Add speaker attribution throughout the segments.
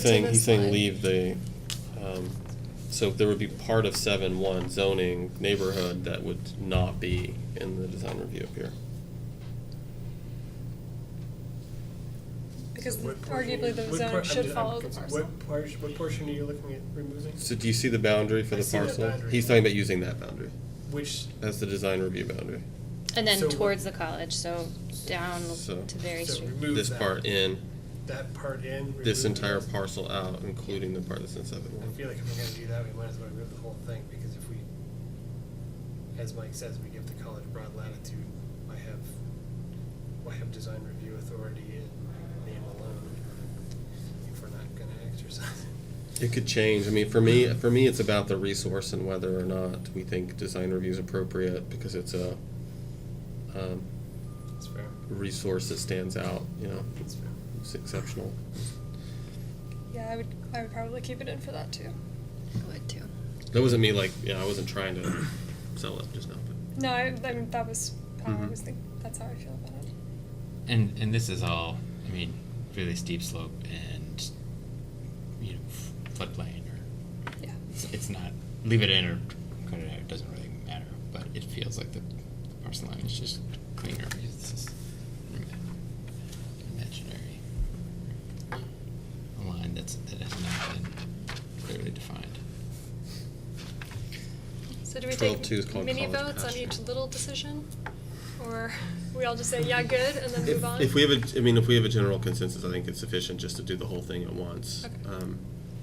Speaker 1: to
Speaker 2: saying, he's
Speaker 1: this
Speaker 2: saying
Speaker 1: line.
Speaker 2: leave the, um, so there would be part of seven one zoning neighborhood that would not be in the design review up here.
Speaker 1: Because
Speaker 3: What portion-
Speaker 1: arguably the
Speaker 3: what por-
Speaker 1: zone
Speaker 3: I'm
Speaker 1: should
Speaker 3: just-
Speaker 1: follow
Speaker 3: I'm
Speaker 1: the
Speaker 3: confused.
Speaker 1: parcel.
Speaker 3: What portion, what portion are you looking at removing?
Speaker 2: So do you see the boundary for
Speaker 3: I
Speaker 2: the
Speaker 3: see that
Speaker 2: parcel?
Speaker 3: boundary.
Speaker 2: He's talking about using that boundary
Speaker 3: Which,
Speaker 2: as the design review boundary.
Speaker 4: And then
Speaker 3: So-
Speaker 4: towards the college, so down
Speaker 2: So-
Speaker 4: to Berry
Speaker 3: so
Speaker 4: Street.
Speaker 3: remove
Speaker 2: This
Speaker 3: that-
Speaker 2: part in,
Speaker 3: That part in.
Speaker 2: this
Speaker 3: remove
Speaker 2: entire
Speaker 3: that.
Speaker 2: parcel out, including the part that's in seven
Speaker 3: I
Speaker 2: one.
Speaker 3: feel like if we're gonna do that, we might as well remove the whole thing, because if we, as Mike says, we give the college broad latitude, I have, I have design review authority in name alone, if we're not gonna exercise it.
Speaker 2: It could change. I mean, for me, for me, it's about the resource and whether or not we think design review is appropriate because it's a um,
Speaker 3: It's fair,
Speaker 2: resource that stands out. You know,
Speaker 3: it's fair.
Speaker 2: it's exceptional.
Speaker 1: Yeah, I would, I would probably keep it in for that too.
Speaker 4: I would too.
Speaker 2: That wasn't me. Like, yeah, I wasn't trying to sell it just now. But
Speaker 1: No, I, I mean, that was how I
Speaker 2: Mhm.
Speaker 1: was thinking, that's how I feel about it.
Speaker 5: And and this is all, I mean, really steep slope and you know f- floodplain or
Speaker 1: Yeah.
Speaker 5: it's, it's not leave it in or cut it out. It doesn't really matter, but it feels like the, the parcel line is just cleaner because it's just imaginary a line that's that has not been clearly defined.
Speaker 1: So do we
Speaker 2: 12-2 is
Speaker 1: take
Speaker 2: called
Speaker 1: mini
Speaker 2: college
Speaker 1: votes on
Speaker 2: pasture.
Speaker 1: each little decision? Or we all just say, yeah, good, and then move on?
Speaker 2: if, if we have a, I mean, if we have a general consensus, I think it's sufficient just to do the whole thing at once.
Speaker 1: Okay.
Speaker 2: Um,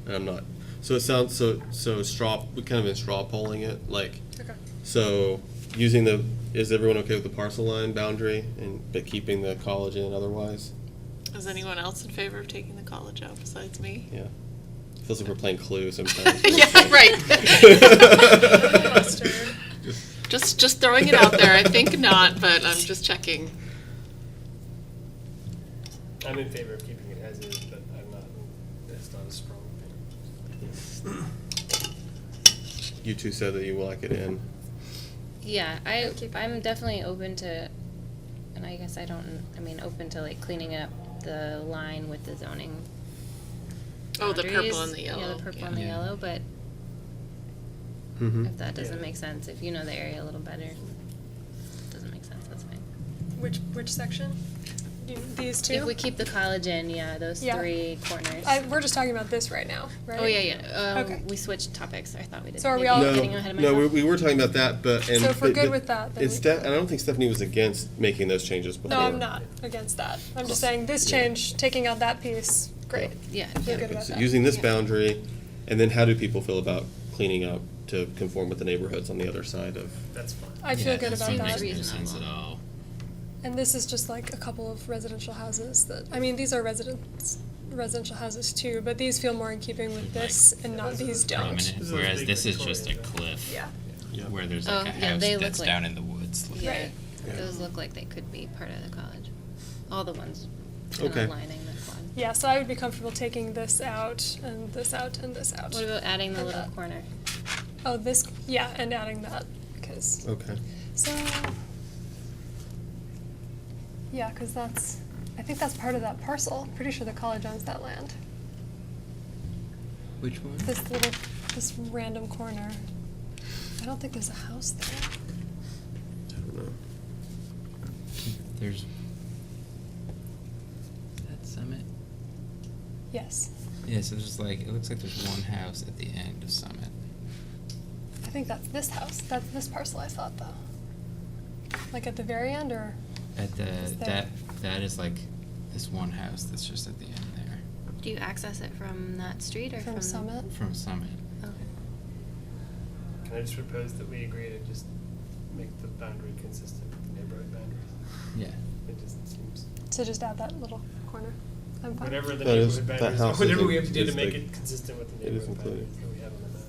Speaker 2: and I'm not. So it sounds so so straw. We kind of been straw polling it. Like,
Speaker 1: Okay,
Speaker 2: So using the, is everyone okay with the parcel line boundary and, but keeping the college in otherwise?
Speaker 6: Is anyone else in favor of taking the college out besides me?
Speaker 2: Yeah. Feels like we're playing Clue sometimes.
Speaker 6: Yeah,
Speaker 1: right.
Speaker 6: Just, just throwing it out there. I think not, but I'm just checking.
Speaker 3: I'm in favor of keeping it as is, but I'm not, that's not a strong opinion.
Speaker 2: You two said that you like it in.
Speaker 4: Yeah, I
Speaker 1: Keep it.
Speaker 4: I'm definitely open to, and I guess I don't. I mean, open to like cleaning up the line with the zoning.
Speaker 6: Oh, the purple
Speaker 4: boundaries.
Speaker 6: and the
Speaker 4: Yeah,
Speaker 6: yellow.
Speaker 4: the purple
Speaker 6: Yeah.
Speaker 4: and the
Speaker 5: Yeah.
Speaker 4: yellow. But
Speaker 2: Mm-hmm.
Speaker 4: if that doesn't
Speaker 3: Yeah.
Speaker 4: make sense, if you know the area a little better, doesn't make sense. That's fine.
Speaker 1: which, which section? You- These two?
Speaker 4: If we keep the college in, yeah, those
Speaker 1: Yeah.
Speaker 4: three corners.
Speaker 1: I, we're just talking about this right now, right?
Speaker 4: Oh yeah, yeah. Um,
Speaker 1: Okay.
Speaker 4: We switched topics. I thought we did.
Speaker 1: So are we
Speaker 4: Maybe
Speaker 1: all-
Speaker 4: I'm
Speaker 2: No,
Speaker 4: Getting ahead of
Speaker 2: no, we,
Speaker 4: myself.
Speaker 2: we were talking about that, but, and.
Speaker 1: So if we're
Speaker 2: but-
Speaker 1: good
Speaker 2: but
Speaker 1: with that, then
Speaker 2: it's
Speaker 1: we-
Speaker 2: Steph, and I don't think Stephanie was against making those changes before.
Speaker 1: No, I'm not against that. I'm just saying this
Speaker 2: Yeah.
Speaker 1: change, taking out that piece, great.
Speaker 4: yeah.
Speaker 1: We're
Speaker 4: yeah.
Speaker 1: good about
Speaker 2: So
Speaker 1: that.
Speaker 2: Using this
Speaker 4: Yeah.
Speaker 2: boundary, and then how do people feel about cleaning up to conform with the neighborhoods on the other side of?
Speaker 3: That's fine.
Speaker 1: I feel
Speaker 5: Yeah,
Speaker 1: good
Speaker 5: this
Speaker 1: about
Speaker 5: one
Speaker 1: that.
Speaker 5: makes no sense at
Speaker 4: Reasonable.
Speaker 5: all.
Speaker 1: And this is just like a couple of residential houses that, I mean, these are residents, residential houses too, but these feel more in keeping with this and not these don't.
Speaker 5: Prominent,
Speaker 3: This is
Speaker 5: whereas
Speaker 3: big
Speaker 5: this is just a
Speaker 3: Victorian, right?
Speaker 5: cliff
Speaker 1: Yeah.
Speaker 2: Yeah.
Speaker 5: where there's like
Speaker 4: Oh,
Speaker 5: a
Speaker 4: yeah,
Speaker 5: house
Speaker 4: they look
Speaker 5: that's
Speaker 4: like-
Speaker 5: down in the woods. Like,
Speaker 4: Yeah.
Speaker 1: Right.
Speaker 2: Yeah.
Speaker 4: Those look like they could be part of the college. All the ones kind
Speaker 2: Okay.
Speaker 4: of lining this one.
Speaker 1: Yeah, so I would be comfortable taking this out and this out and this out.
Speaker 4: What about adding the
Speaker 1: And
Speaker 4: little
Speaker 1: that.
Speaker 4: corner?
Speaker 1: Oh, this, yeah, and adding that, because,
Speaker 2: Okay.
Speaker 1: so. Yeah, because that's, I think that's part of that parcel. Pretty sure the college owns that land.
Speaker 5: Which one?
Speaker 1: This little, this random corner. I don't think there's a house there.
Speaker 2: I don't know.
Speaker 5: There's. Is that Summit?
Speaker 1: Yes.
Speaker 5: Yeah, so there's like it looks like there's one house at the end of Summit.
Speaker 1: I think that's this house. That's this parcel I thought though. Like at the very end or
Speaker 5: At the
Speaker 1: Is there-
Speaker 5: that that is like this one house that's just at the end there
Speaker 4: Do you access it from that street or
Speaker 1: from Summit?
Speaker 5: from Summit.
Speaker 4: Okay.
Speaker 3: Can I just propose that we agree to just make the boundary consistent with the neighborhood boundaries?
Speaker 5: Yeah.
Speaker 3: It just seems,
Speaker 1: To just add that little corner. I'm fine.
Speaker 3: whatever the
Speaker 2: That is-
Speaker 3: neighborhood
Speaker 2: that
Speaker 3: boundaries,
Speaker 2: house is
Speaker 3: whatever
Speaker 2: in-
Speaker 3: we have to do
Speaker 2: is
Speaker 3: to make
Speaker 2: like-
Speaker 3: it consistent with the
Speaker 2: it is
Speaker 3: neighborhood boundaries
Speaker 2: included.
Speaker 3: that we have on the map.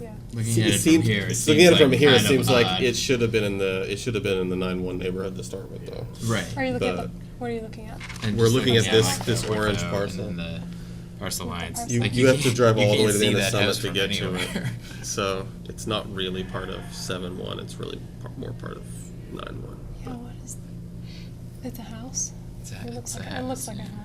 Speaker 1: Yeah.
Speaker 5: Looking
Speaker 2: See,
Speaker 5: at it,
Speaker 2: seems-
Speaker 5: from here, it
Speaker 2: looking at it
Speaker 5: seems
Speaker 2: from
Speaker 5: like
Speaker 2: here, it
Speaker 5: kind of
Speaker 2: seems like
Speaker 5: odd.
Speaker 2: it should have been in the it should have been in the nine one neighborhood to start with, though.
Speaker 5: right.
Speaker 1: Are you looking
Speaker 2: But-
Speaker 1: at the what are you looking at?
Speaker 5: And
Speaker 2: We're
Speaker 5: just
Speaker 2: looking at
Speaker 5: yeah,
Speaker 2: this-
Speaker 5: like
Speaker 2: this
Speaker 5: the ortho
Speaker 2: orange
Speaker 5: and
Speaker 2: parcel.
Speaker 5: the parcel lines.
Speaker 1: You-
Speaker 5: Like,
Speaker 2: you have to
Speaker 5: can't-
Speaker 2: drive
Speaker 5: you
Speaker 2: all the
Speaker 5: can't
Speaker 2: way to the
Speaker 5: see
Speaker 2: end of
Speaker 5: that
Speaker 2: Summit
Speaker 5: house
Speaker 2: to
Speaker 5: from
Speaker 2: get to it.
Speaker 5: anywhere.
Speaker 2: So it's not really part of seven one. It's really par- more part of nine one.
Speaker 1: Yeah, what is it's a house?
Speaker 5: It's a-
Speaker 1: It looks
Speaker 5: it's a
Speaker 1: like it looks
Speaker 5: house,
Speaker 1: like a
Speaker 5: yeah.